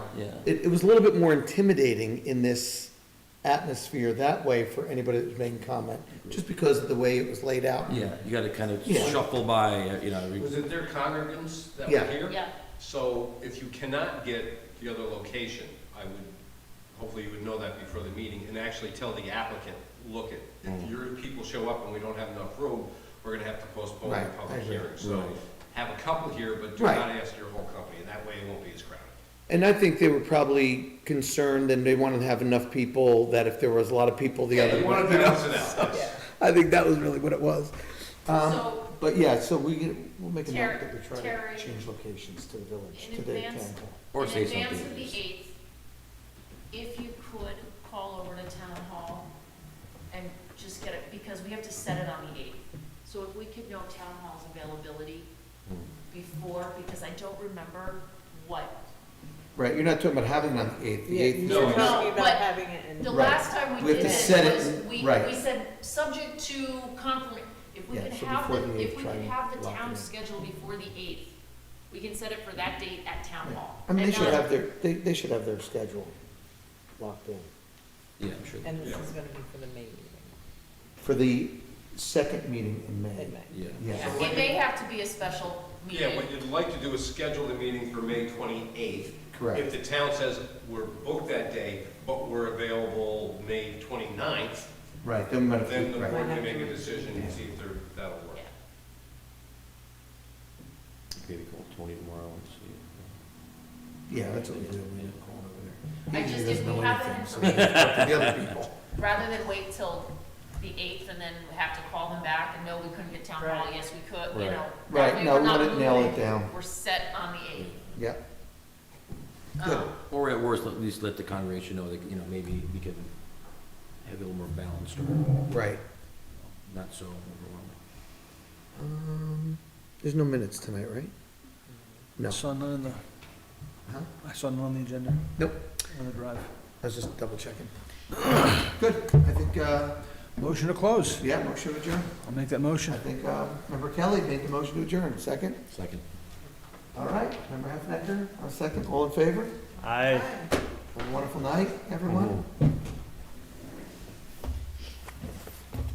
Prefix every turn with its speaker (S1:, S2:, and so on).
S1: Yeah.
S2: It, it was a little bit more intimidating in this atmosphere that way for anybody that was making comment, just because of the way it was laid out.
S1: Yeah, you gotta kind of
S2: Yeah.
S1: shuffle by, uh, you know. we-
S3: Was it their congregants that
S2: Yeah.
S3: were here?
S4: Yeah.
S3: So if you cannot get the other location, I would, hopefully you would know that before the meeting, and actually tell the applicant, look at, if
S2: Mm.
S3: your people show up and we don't have enough room, we're gonna have to postpone
S2: Right,
S3: the
S2: I
S3: public
S2: agree.
S3: hearing. So
S1: Right.
S3: have a couple here, but do
S2: Right.
S3: not ask your whole company, and that way it won't be as crowded.
S2: And I think they were probably concerned and they wanted to have enough people that if there was a lot of people, the
S3: Yeah,
S2: other.
S3: you wanna
S2: you know,
S3: balance it out, yes.
S2: I think that was really what it was. Um,
S4: So
S2: but yeah, so we, can- we'll make a
S4: Ter-
S2: note that we try
S4: Terry,
S2: to change locations to the village,
S4: in
S2: to the town
S4: advance-
S2: hall.
S1: Or
S4: in
S1: say
S4: advance
S1: something.
S4: of the eighth, if you could call over to town hall and just get it, because we have to set it on the eighth. So if we could know town hall's availability
S2: Hmm.
S4: before, because I don't remember what,
S2: Right, you're not talking about having it on the eighth, the
S5: Yeah,
S2: eighth
S5: you're
S2: is.
S3: No,
S5: talking
S2: always-
S5: about
S4: but
S5: having it in.
S4: the
S2: Right.
S4: last time
S2: We
S4: we
S2: have
S4: did
S2: to set it
S4: it was,
S2: in-
S4: we,
S2: right.
S4: we said, subject to confirm, if we
S2: Yeah,
S4: could
S2: so
S4: have,
S2: before
S4: the
S2: the
S4: if
S2: 8th,
S4: we
S2: try
S4: could
S2: and
S4: have the
S2: lock it in.
S4: town scheduled before the eighth, we can set it for that date at town hall.
S2: I mean, they
S4: And
S2: should
S4: not-
S2: have their, they, they should have their schedule locked in.
S1: Yeah, I'm sure.
S5: And this
S3: Yeah.
S5: is gonna be for the May meeting
S2: For the second meeting in May.
S5: in May.
S1: Yeah.
S2: Yeah,
S4: It may have to be a special
S3: Yeah,
S4: meeting.
S3: what you'd like to do is schedule the meeting for May twenty-eighth. If
S2: correct.
S3: the town says, we're booked that day, but we're available May 29th,
S2: Right, then we might
S3: then
S2: have,
S3: the
S2: right.
S3: board can make a decision and see if they're, that'll work.
S4: Yeah.
S6: Maybe call Tony tomorrow and see.
S2: Yeah, that's what we do. We have a call over there.
S4: I
S2: He
S4: just-
S2: doesn't
S4: if we
S2: know
S4: have
S2: anything,
S4: it
S2: so we have to talk to the other people.
S4: Rather than wait till the eighth and then have to call them back and no, we couldn't get town hall,
S5: Right.
S4: yes, we could, you
S1: Right.
S4: know. that
S2: Right,
S4: way
S2: no,
S4: we're
S2: we
S4: not
S2: wanna nail
S4: limited.
S2: it down.
S4: We're set on the eighth.
S2: Yep, Good.
S4: Um,
S1: Or at worst, at least let the congregation know that, you know, maybe we can have it a little more balanced or
S2: right.
S1: not so overwhelming.
S2: Um, There's no minutes tonight, right? No.
S7: I saw none on the,
S2: Huh?
S7: I saw none on the agenda,
S2: Nope,
S7: on the drive.
S2: I was just double checking. Good, I think, uh,
S7: Motion to close.
S2: yeah, motion to adjourn.
S7: I'll make that
S2: I
S7: motion.
S2: think, uh, member Kelly made the motion to adjourn, second.
S1: Second.
S2: All right, member Heffenner, a second, all in favor?
S7: Aye.
S2: Have a wonderful night, everyone.